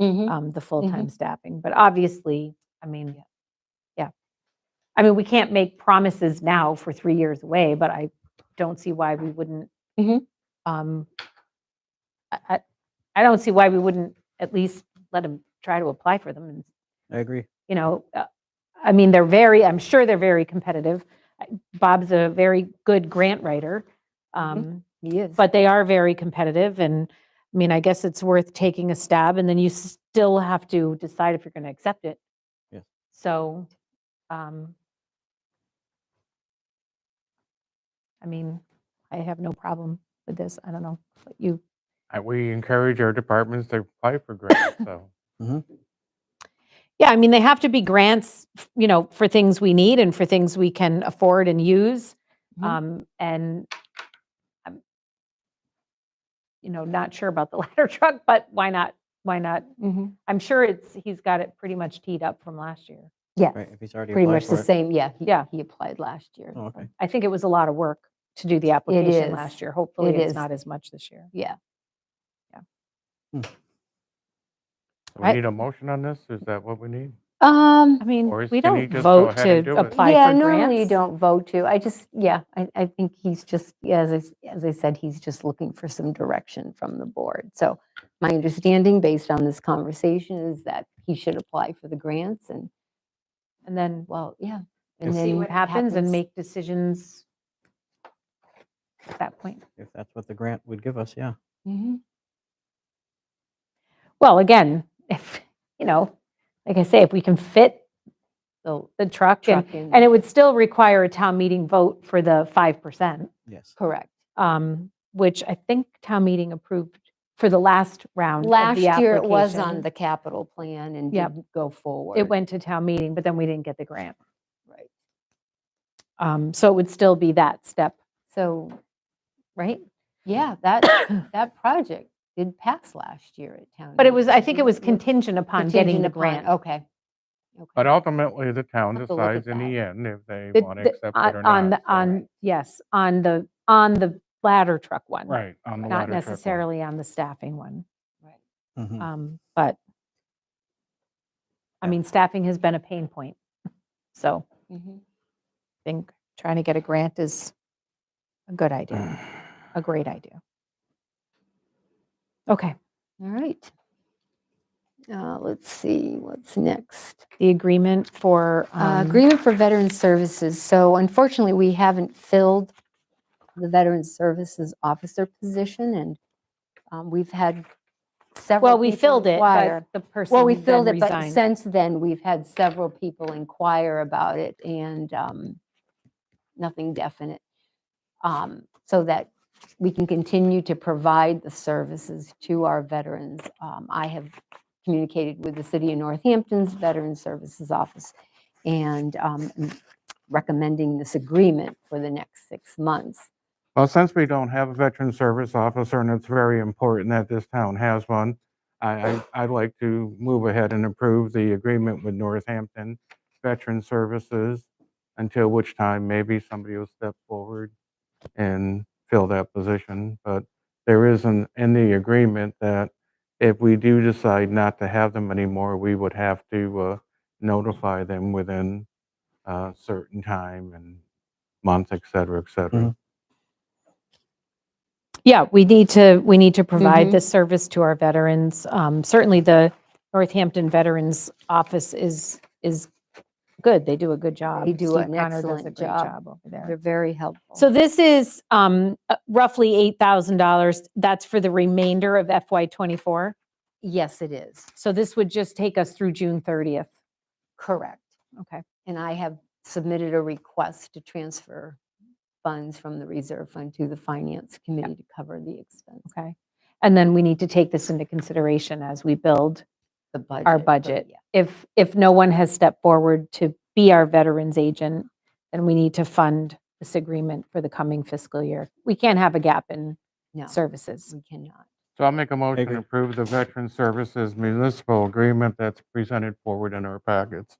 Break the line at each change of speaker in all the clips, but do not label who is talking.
Mhm.
um, the full-time staffing. But obviously, I mean, yeah. I mean, we can't make promises now for three years away, but I don't see why we wouldn't.
Mhm.
um, I, I- I don't see why we wouldn't at least let them try to apply for them and
I agree.
you know, uh, I mean, they're very, I'm sure they're very competitive. I- Bob's a very good grant writer. Um,
Mm-hmm. He is.
but they are very competitive and, I mean, I guess it's worth taking a stab and then you still have to decide if you're going to accept it.
Yeah.
So, um, I mean, I have no problem with this. I don't know, what you,
Uh, We encourage our departments to apply for grants, so.
Yeah, I mean, they have to be grants, f- you know, for things we need and for things we can afford and use.
Mhm.
Um, and I'm, you know, not sure about the ladder truck, but why not? Why not?
Mhm.
I'm sure it's, he's got it pretty much teed up from last year.
Yes,
Right, if he's already
pretty
applied
much
for
the
it.
same, yeah. he-
Yeah.
He applied last year.
Oh,
so,
okay.
I think it was a lot of work to do the application
is.
last year. Hopefully
It
it's
is.
not as much this year.
Yeah,
Do
I-
We need a motion on this? Is that what we need?
Oh.
um,
I mean,
Or is-
we
can he
don't
just go
vote
ahead and
to
do it?
apply
yeah,
for
normally you
grants.
don't vote to, I just, yeah, I, I think he's just, yeah, as I, s- as I said, he's just looking for some direction from the board. So my understanding, based on this conversation, is that he should apply for the grants and,
And then
well, yeah.
we'll
and
see
then
what happens and make decisions at that point.
If that's what the grant would give us, yeah.
Mhm.
Well, again, if, you know, like I say, if we can fit the, the truck and,
Truck in
and
there.
it would still require a town meeting vote for the 5%,
Yes.
Correct.
um, which I think town meeting approved for the last
um,
round of the
Last year it was on
application.
the capital plan and
Yep.
didn't go forward.
It went to town meeting, but then we didn't get the grant.
Right.
Um, So it would still be that step,
So
right?
Yeah, that, that project did pass last year at town.
But it was, I
meeting.
think it was
We're
contingent upon getting
contingent
the
upon-
grant.
Okay. Okay.
But ultimately, the town
Have to look at
decides in the end if they
The-
want to
the-
accept
on-
it or
On,
not.
the-
so-
on, yes, on the, on the ladder truck one.
Right, on
Not
the ladder truck one. Hmm.
necessarily on the staffing one.
Right.
Mhm.
Um, But, I
Yeah.
mean, staffing has been a pain point. So
Mhm.
I think trying to get a grant is a good idea, a great idea. Okay,
All right. Uh, Let's see, what's next?
the agreement for.
Uh,
um,
Agreement for Veteran Services. So unfortunately, we haven't filled the Veteran Services Officer position, and um, we've had several.
Well, we
people
filled it, but
inquire.
the person
Well, we filled
then
it, but
resigned.
since then, we've had several people inquire about it and um, nothing definite. Um, So that we can continue to provide the services to our veterans. Um, I have communicated with the City of Northampton's Veteran Services Office and um, m- recommending this agreement for the next six months.
Well, since we don't have a veteran service officer, and it's very important that this town has one, I, I- I'd like to move ahead and approve the agreement with Northampton Veteran Services, until which time maybe somebody will step forward and fill that position. But there is an, in the agreement that if we do decide not to have them anymore, we would have to uh, notify them within a certain time and month, et cetera, et cetera.
Mhm.
Yeah, we need to, we need to
Mhm.
provide this service to our veterans. Um, Certainly, the Northampton Veterans Office is, is good. They do a good job.
They do
Steve
an
Connor does a
excellent
great
job.
Over there.
They're very helpful.
So this is um, uh, roughly $8,000. That's for the remainder of FY '24.
Yes, it is.
So this would just take us through June 30th.
Correct.
Okay.
And I have submitted a request to transfer funds from the reserve fund to the finance committee to cover the expense,
Okay. And then we need to take this into consideration as we build
the budget.
our
but
budget.
yeah.
If, if no one has stepped forward to be our veterans agent, then we need to fund this agreement for the coming fiscal year. We can't have a gap in
No,
services.
we cannot.
So I'll make a motion
agree.
to approve the Veteran Services Municipal Agreement that's presented forward in our packets.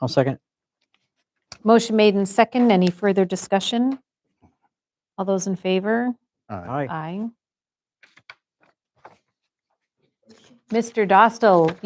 I'll second.
Motion made in second. Any further discussion? All those in favor?
Aye.
Aye.
Aye. Mr. Dostal,